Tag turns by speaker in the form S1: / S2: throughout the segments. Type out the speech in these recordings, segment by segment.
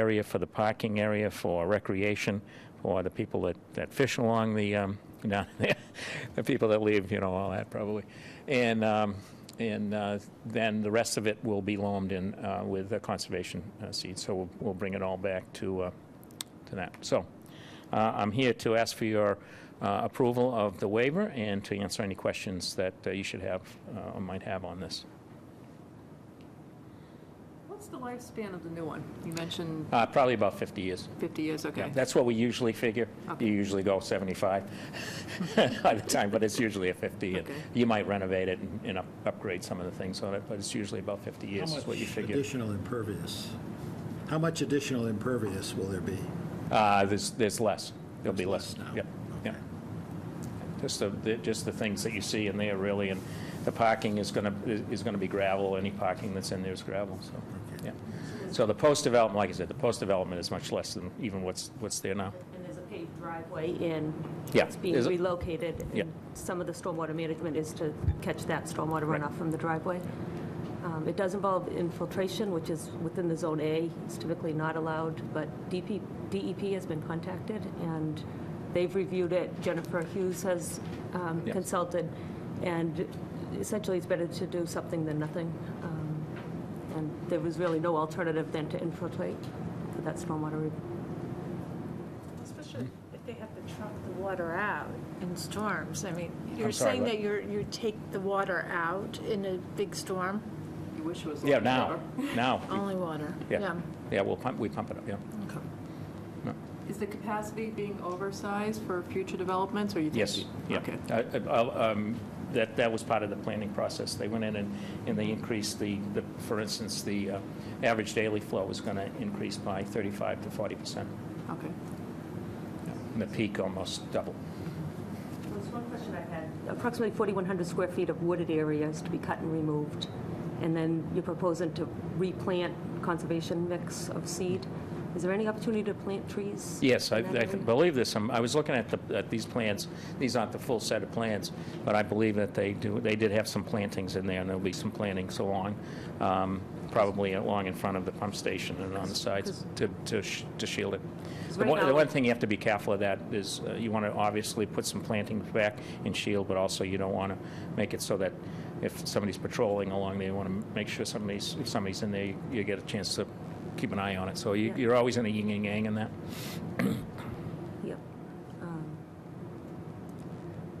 S1: area for the parking area for recreation for the people that, that fish along the um, down there, the people that leave, you know, all that probably, and um, and uh, then the rest of it will be loamed in uh, with uh, conservation uh, seed. So we'll, we'll bring it all back to uh, to that. So uh, I'm here to ask for your uh, approval of the waiver and to answer any questions that uh, you should have uh, or might have on this.
S2: What's the lifespan of the new one? You mentioned
S1: Uh, probably about 50 years.
S2: 50 years,
S1: Yeah,
S2: okay.
S1: that's what we usually figure.
S2: Okay.
S1: You usually go 75 by the time, but it's usually a 50. and
S2: Okay.
S1: You might renovate it and- and up- upgrade some of the things on it, but it's usually about 50 years is what you
S3: How much
S1: figure.
S3: additional impervious? How much additional impervious will there be?
S1: Uh, There's there's less. There'll be less.
S3: There's less now.
S1: Yep, yep. Just the- the, just the things that you see in there, really, and the parking is going to, is going to be gravel. Any parking that's in there is gravel, so,
S3: Okay.
S1: yeah. So the post-development, like I said, the post-development is much less than even what's, what's there now.
S4: And there's a paved driveway in.
S1: Yeah.
S4: It's being
S1: Is it-
S4: relocated.
S1: Yeah.
S4: and Some of the stormwater management is to catch that stormwater
S1: Right.
S4: runoff from the driveway. Um, It does involve infiltration, which is within the Zone A. It's typically not allowed, but DP, DEP E has been contacted, and they've reviewed it. Jennifer Hughes has um,
S1: Yes.
S4: consulted, and essentially, it's better to do something than nothing. Um, And there was really no alternative than to infiltrate for that stormwater re-
S5: Especially if they have to truck the water out in storms. I mean, you're
S1: sorry,
S5: saying
S1: what?
S5: that you're, you take the water out in a big storm?
S2: You wish it was
S1: Yeah,
S2: longer.
S1: now, now.
S5: Only water?
S1: Yeah, yeah, we'll pump, we pump it up, yeah.
S5: Okay.
S2: Is the capacity being oversized for future developments, or you think?
S1: Yes, yeah.
S2: Okay.
S1: Uh, uh, um, That, that was part of the planning process. They went in and, and they increased the, the- for instance, the uh, average daily flow was going to increase by 35 to 40 percent.
S2: Okay.
S1: The peak almost double.
S4: There's one question I had. Approximately 4,100 square feet of wooded areas to be cut and removed, and then you're proposing to replant conservation mix of seed. Is there any opportunity to plant trees?
S1: Yes, I
S4: in that
S1: I
S4: area?
S1: believe there's some, I was looking at the, at these plans, these aren't the full set of plans, but I believe that they do, they did have some plantings in there, and there'll be some plantings along, um, probably along in front of the pump station and on the sides to, to sh- to shield it. The
S4: right
S1: one, the
S4: now-
S1: one thing you have to be careful of that is, uh, you want to obviously put some plantings back and shield, but also you don't want to make it so that if somebody's patrolling along there, you want to make sure somebody's, if somebody's in there, you- you get a chance to keep an eye on it. So you-
S4: Yeah.
S1: you're always in a yin and yang in that.
S4: Yep. Um,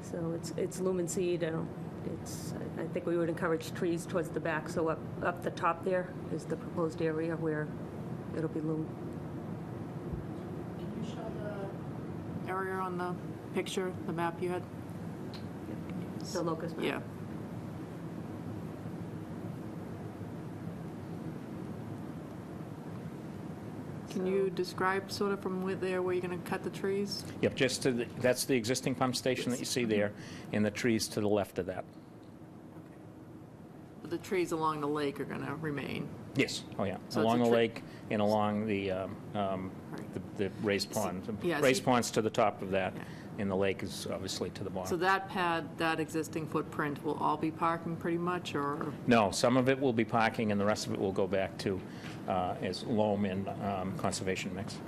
S4: So it's, it's lumen seed, I don't, it's, I I think we would encourage trees towards the back, so up, up the top there is the proposed area where it'll be lumen.
S2: Can you show the area on the picture, the map you had?
S4: the locust map.
S2: Yeah. Can you describe sort of from where there, where you're going to cut the trees?
S1: Yep, just to, the- that's the existing pump station that you see there, and the trees to the left of that.
S2: The trees along the lake are going to remain.
S1: Yes, oh yeah,
S2: So it's
S1: along
S2: a
S1: the
S2: tre-
S1: lake and along the, um, um,
S2: Right.
S1: the- the raised pond. The
S2: yeah, so
S1: Raised
S2: you-
S1: pond's to the top of that,
S2: Yeah.
S1: and the lake is obviously to the
S2: So
S1: bottom.
S2: that pad, that existing footprint will all be parking pretty much, or?
S1: No, some of it will be parking, and the rest of it will go back to, uh, as loam and um, conservation mix.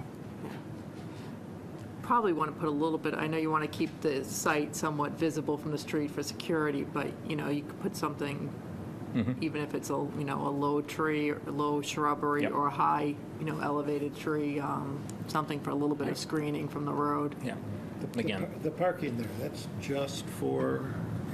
S2: probably want to put a little bit, I know you want to keep the site somewhat visible from the street for security, but, you know, you could put something, even if it's a, you know, a low tree, or a low shrubbery,
S1: Yep.
S2: or a high, you know, elevated tree, um, something for a little bit of screening from the road.
S1: Yeah,
S3: The-
S1: again,
S3: The parking there, that's just for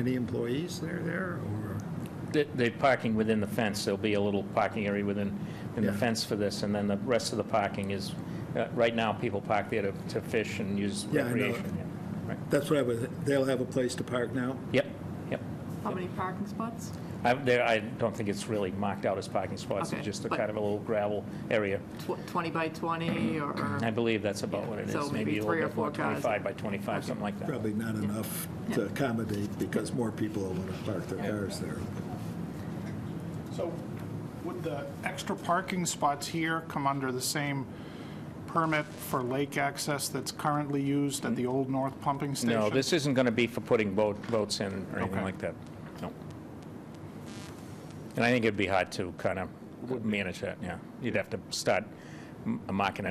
S3: any employees that are there, or?
S1: the- the parking within the fence, there'll be a little parking area within, in the
S3: Yeah.
S1: fence for this, and then the rest of the parking is, uh, right now, people park there to to fish and use
S3: Yeah, I know.
S1: recreation. Yeah, right.
S3: That's what I was, they'll have a place to park now?
S1: Yep, yep.
S2: How many parking spots?
S1: I, there, I don't think it's really marked out as parking spots,
S2: Okay,
S1: it's just a
S2: but-
S1: kind of a little gravel area.
S2: Tw- 20 by 20, or?
S1: I believe that's about what it
S2: So
S1: is,
S2: maybe
S1: maybe a
S2: three or
S1: little bit more,
S2: four cars.
S1: 25 by 25, something like that.
S3: Probably not enough to accommodate, because more people will want to park their cars there.
S6: So would the extra parking spots here come under the same permit for lake access that's currently used at the old north pumping station?
S1: Mm-hmm. No, this isn't going to be for putting boat, boats in or anything
S6: Okay.
S1: like that, no. And I think it'd be hard to kind of manage that, yeah. You'd have to start m- marking it